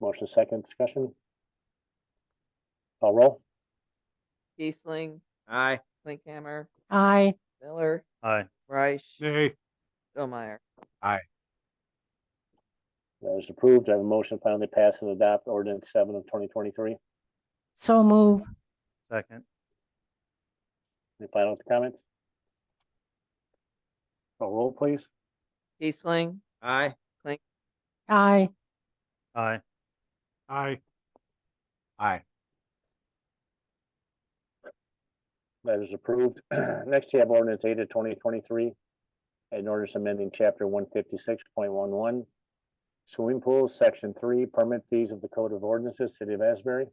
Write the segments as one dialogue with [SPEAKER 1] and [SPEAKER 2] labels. [SPEAKER 1] Motion second, discussion? Call roll?
[SPEAKER 2] Kiesling,
[SPEAKER 3] Aye.
[SPEAKER 2] Linkhammer,
[SPEAKER 4] Aye.
[SPEAKER 2] Miller,
[SPEAKER 5] Aye.
[SPEAKER 2] Reich,
[SPEAKER 5] Nay.
[SPEAKER 2] Stillmeyer.
[SPEAKER 1] That is approved. I have a motion to finally pass and adopt ordinance seven of twenty twenty-three.
[SPEAKER 4] So move.
[SPEAKER 5] Second.
[SPEAKER 1] Any final comments? Call roll, please.
[SPEAKER 2] Kiesling,
[SPEAKER 3] Aye.
[SPEAKER 4] Aye.
[SPEAKER 5] Aye. Aye. Aye.
[SPEAKER 1] That is approved. Next, you have ordinance eight of twenty twenty-three. An ordinance amending chapter one fifty-six point one one. Swimming pools, section three, permit fees of the Code of Ordinances, City of Asbury.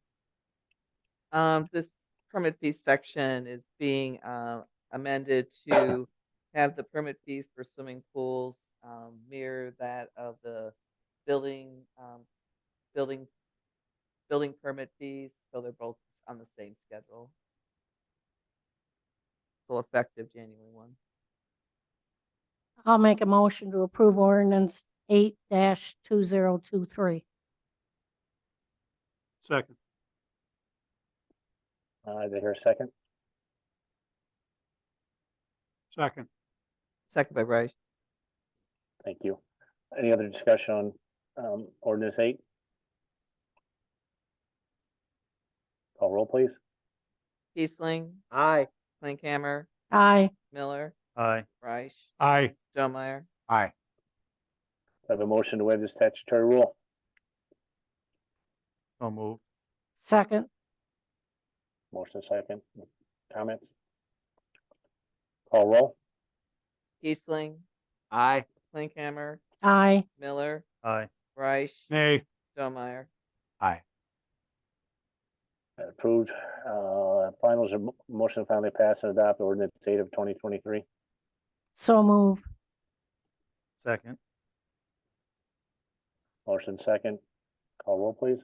[SPEAKER 2] um, this permit fee section is being, uh, amended to have the permit fees for swimming pools, um, mirror that of the building, um, building, building permit fees, so they're both on the same schedule. Full effective January one.
[SPEAKER 4] I'll make a motion to approve ordinance eight dash two zero two three.
[SPEAKER 5] Second.
[SPEAKER 1] Uh, did I hear a second?
[SPEAKER 5] Second.
[SPEAKER 2] Second by Reich.
[SPEAKER 1] Thank you. Any other discussion on, um, ordinance eight? Call roll, please.
[SPEAKER 2] Kiesling,
[SPEAKER 3] Aye.
[SPEAKER 2] Linkhammer,
[SPEAKER 4] Aye.
[SPEAKER 2] Miller,
[SPEAKER 5] Aye.
[SPEAKER 2] Reich,
[SPEAKER 5] Aye.
[SPEAKER 2] Stillmeyer.
[SPEAKER 5] Aye.
[SPEAKER 1] I have a motion to waive the statutory rule.
[SPEAKER 5] So move.
[SPEAKER 4] Second.
[SPEAKER 1] Motion second. Comments? Call roll?
[SPEAKER 2] Kiesling,
[SPEAKER 3] Aye.
[SPEAKER 2] Linkhammer,
[SPEAKER 4] Aye.
[SPEAKER 2] Miller,
[SPEAKER 5] Aye.
[SPEAKER 2] Reich,
[SPEAKER 5] Nay.
[SPEAKER 2] Stillmeyer.
[SPEAKER 1] Approved. Uh, finals, a mo- motion to finally pass and adopt ordinance eight of twenty twenty-three.
[SPEAKER 4] So move.
[SPEAKER 5] Second.
[SPEAKER 1] Motion second. Call roll, please.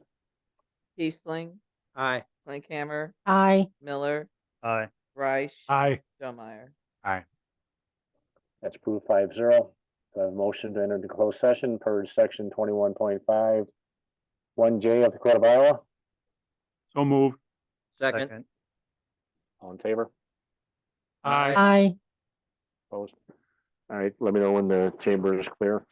[SPEAKER 2] Kiesling,
[SPEAKER 3] Aye.
[SPEAKER 2] Linkhammer,
[SPEAKER 4] Aye.
[SPEAKER 2] Miller,
[SPEAKER 5] Aye.
[SPEAKER 2] Reich,
[SPEAKER 5] Aye.
[SPEAKER 2] Stillmeyer.
[SPEAKER 1] That's approved five zero. Do I have a motion to enter into closed session per section twenty-one point five one J of the Code of Iowa?
[SPEAKER 5] So move.
[SPEAKER 3] Second.
[SPEAKER 1] All in favor?
[SPEAKER 3] Aye.
[SPEAKER 4] Aye.
[SPEAKER 1] Opposed? All right, let me know when the chamber is clear.